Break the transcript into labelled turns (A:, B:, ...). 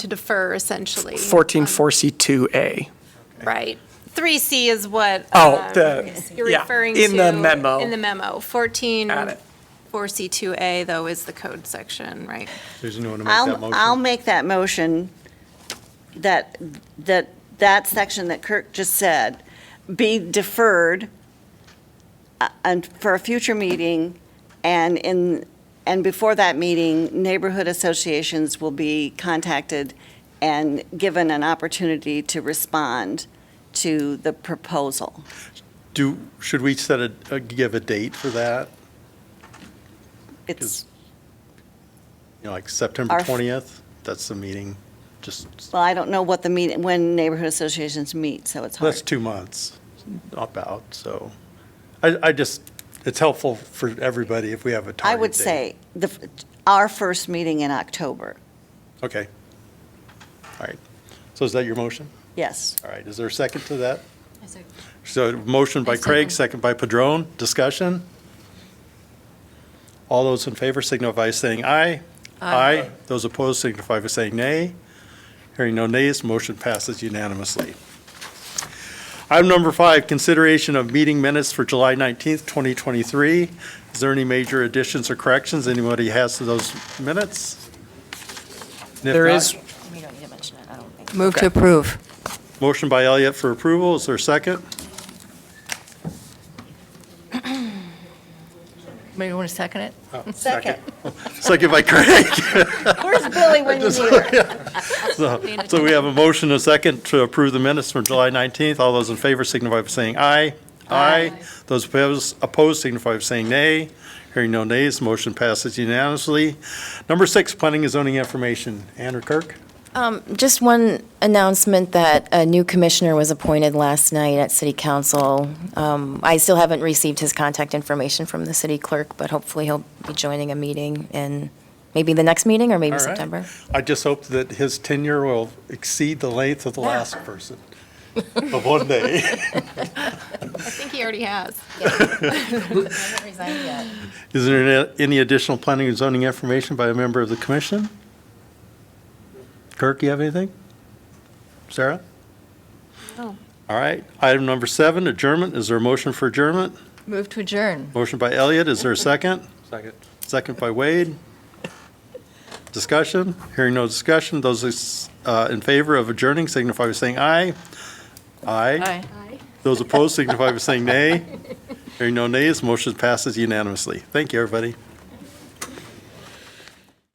A: to defer essentially.
B: 144C2A.
A: Right. 3C is what.
B: Oh,
A: um,
B: the,
A: You're
B: yeah,
A: referring to.
B: in the memo.
A: In the memo. 14.
B: Got it.
A: 4C2A though is the code section, right?
C: Susan, you want to make that
D: I'll, I'll
C: motion?
D: make that motion that, that, that section that Kirk just said be deferred uh, and for a future meeting and in, and before that meeting, neighborhood associations will be contacted and given an opportunity to respond to the proposal.
C: Do, should we set a, uh, give a date for that?
D: It's,
C: You know, like September
D: Our f-
C: 20th? That's the meeting, just,
D: well, I don't know what the meeting, when neighborhood associations meet, so it's hard.
C: that's two months about, so. I, I just, it's helpful for everybody if we have a
D: I
C: target
D: would
C: date.
D: say the, f- our first meeting in October,
C: Okay. All right. So is that your motion?
D: yes.
C: All right, is there a second to that? So motion by Craig, second by Padron, discussion? All those in favor signify by saying aye. Aye. Those opposed signify by saying nay. Hearing no nays, motion passes unanimously. Item number five, consideration of meeting minutes for July 19th, 2023. Is there any major additions or corrections anybody has to those minutes? And if
B: There
C: not,
B: is,
E: We don't need to mention it, I don't think.
F: Move to approve.
C: Motion by Elliott for approval, is there a second?
E: Maybe want to second it?
D: Second.
C: Second by Craig.
D: Where's Billy when you need her?
C: So so we have a motion, and a second, to approve the minutes from July 19th. All those in favor signify by saying aye. Aye. Those opposed opposed signify by saying nay. Hearing no nays, motion passes unanimously. Number six, planning and zoning information. Andrew Kirk?
G: Um, Just one announcement that a new commissioner was appointed last night at City Council. Um, I still haven't received his contact information from the city clerk, but hopefully he'll be joining a meeting in maybe the next meeting or maybe
C: All right.
G: September.
C: I just hope that his tenure will exceed the length of the last person of one day.
A: I think he already has.
C: Is there any additional planning and zoning information by a member of the commission? Kirk, you have anything? Sarah?
A: No.
C: All right. Item number seven, adjournment. Is there a motion for adjournment?
E: Move to adjourn.
C: Motion by Elliot. Is there a second?
H: Second.
C: Second by Wade. Discussion? Hearing no discussion. Those uh, in favor of adjourning signify by saying aye. Aye. Those opposed signify by saying nay. Hearing no nays, motion passes unanimously. Thank you, everybody.